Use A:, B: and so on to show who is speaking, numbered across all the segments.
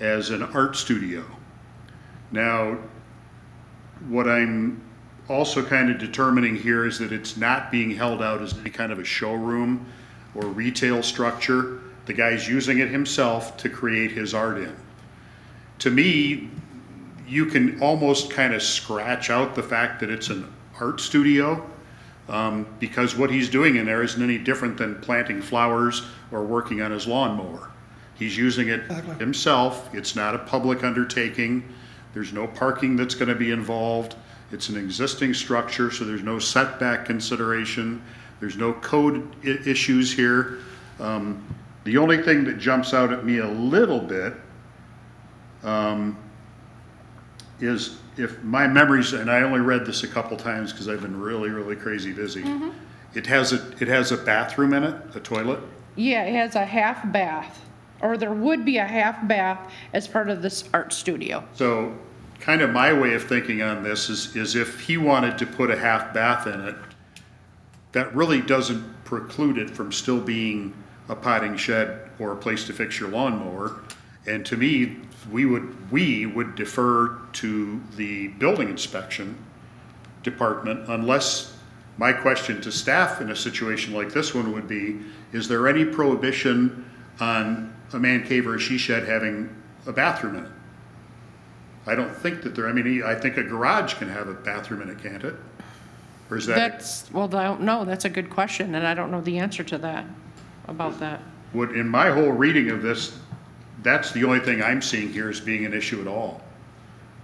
A: as an art studio. Now, what I'm also kind of determining here is that it's not being held out as any kind of a showroom or retail structure. The guy's using it himself to create his art in. To me, you can almost kind of scratch out the fact that it's an art studio um, because what he's doing in there isn't any different than planting flowers or working on his lawnmower. He's using it himself. It's not a public undertaking. There's no parking that's going to be involved. It's an existing structure, so there's no setback consideration. There's no code i- issues here. Um, the only thing that jumps out at me a little bit um, is if my memories, and I only read this a couple times because I've been really, really crazy busy. It has a, it has a bathroom in it, a toilet.
B: Yeah, it has a half bath, or there would be a half bath as part of this art studio.
A: So kind of my way of thinking on this is, is if he wanted to put a half bath in it, that really doesn't preclude it from still being a potting shed or a place to fix your lawnmower. And to me, we would, we would defer to the building inspection department unless, my question to staff in a situation like this one would be, is there any prohibition on a man cave or a she shed having a bathroom in it? I don't think that there, I mean, I think a garage can have a bathroom in it, can't it? Or is that,
B: That's, well, I don't know, that's a good question, and I don't know the answer to that, about that.
A: what, in my whole reading of this, that's the only thing I'm seeing here as being an issue at all.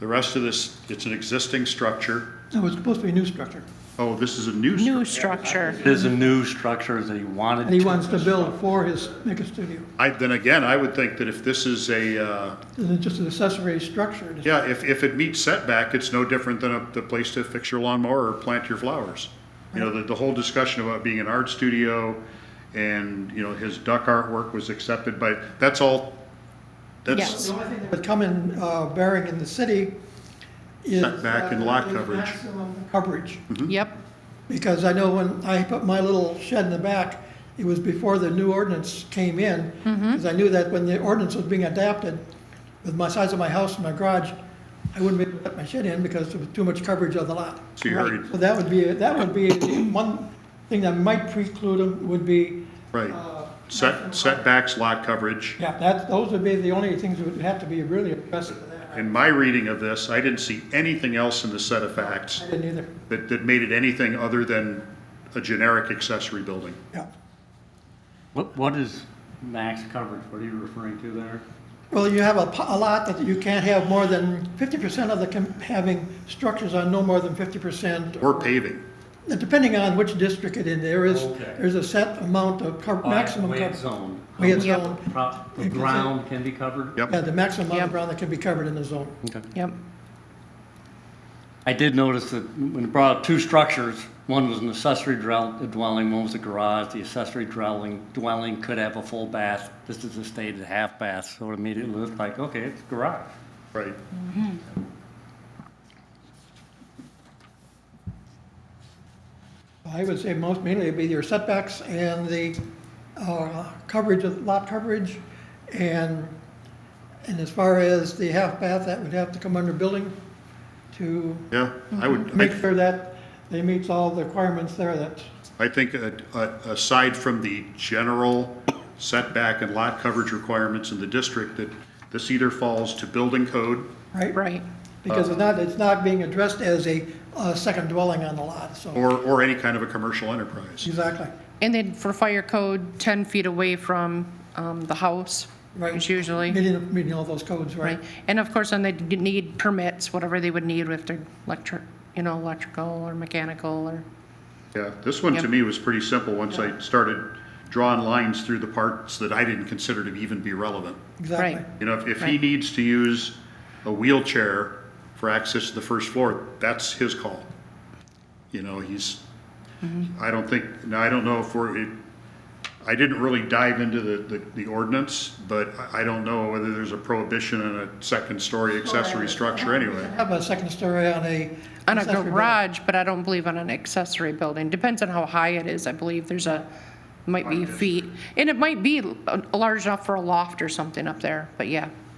A: The rest of this, it's an existing structure.
C: No, it's supposed to be a new structure,
A: Oh, this is a new
B: New
A: structure.
B: structure,
D: There's a new structure that he wanted.
C: and he
D: to-
C: wants to build for his, make a studio.
A: I, then again, I would think that if this is a, uh,
C: And it's just an accessory structure. It's-
A: yeah, if, if it meets setback, it's no different than a, the place to fix your lawnmower or plant your flowers. You know, the, the whole discussion about being an art studio and, you know, his duck artwork was accepted by, that's all, that's
B: Yes.
C: The only thing that would come in uh, bearing in the city is.
A: Setback and
C: uh,
A: lot
C: is
A: coverage.
C: maximum Coverage,
A: mm-hmm.
B: yep,
C: because I know when I put my little shed in the back, it was before the new ordinance came in. Because I knew that when the ordinance was being adapted, with my size of my house and my garage, I wouldn't be able to put my shed in because there was too much coverage of the lot.
A: so you already,
C: So that would be, that would be, one thing that might preclude them would be
A: right. Set, setbacks, lot coverage.
C: Yeah, that, those would be the only things that would have to be really addressed for that.
A: In my reading of this, I didn't see anything else in the set of facts
C: I didn't either,
A: that, that made it anything other than a generic accessory building.
C: yeah.
D: What, what is max coverage? What are you referring to there?
C: Well, you have a, po- a lot that you can't have more than fifty percent of the, com- having structures on no more than fifty percent.
A: Or paving.
C: Depending on which district it in, there is,
D: Okay.
C: there's a set amount of cov- maximum
D: Way it's
C: coverage.
D: zoned.
C: We had
B: Yep.
C: zone,
D: Pro- The ground can be covered?
A: Yep.
C: yeah, the maximum amount of
B: Yep.
C: ground that can be covered in the zone.
D: Okay.
B: yep,
D: I did notice that when it brought up two structures, one was an accessory drell- uh, dwelling, one was a garage. The accessory dwelling, dwelling could have a full bath. This is a stated half bath, so it immediately looked like, okay, it's garage.
A: Right.
C: I would say most mainly it'd be your setbacks and the, uh, coverage of, lot coverage. And, and as far as the half bath, that would have to come under building to
A: Yeah, I would,
C: make
A: I,
C: sure that they meets all the requirements there that,
A: I think uh, uh, aside from the general setback and lot coverage requirements in the district, that this either falls to building code,
C: right?
B: right,
C: Because it's not, it's not being addressed as a, uh second dwelling on the lot, so,
A: or, or any kind of a commercial enterprise.
C: exactly.
B: and then for fire code, ten feet away from, um, the house, is usually,
C: Meeting, meeting all those codes, right?
B: right? And of course, then they need permits, whatever they would need with their electric, you know, electrical or mechanical or,
A: Yeah, this one to
B: Yep.
A: me was pretty simple, once I started drawing lines through the parts that I didn't consider to even be relevant.
C: Exactly.
B: Right.
A: You know, if, if he
B: Right.
A: needs to use a wheelchair for access to the first floor, that's his call. You know, he's, I don't think, now, I don't know if we're, it, I didn't really dive into the, the, the ordinance, but I, I don't know whether there's a prohibition on a second story accessory structure anyway.
C: Have a second story on a.
B: on a
C: accessory building.
B: garage, but I don't believe on an accessory building. Depends on how high it is, I believe. There's a, might be feet. And it might be uh, large enough for a loft or something up there, but yeah.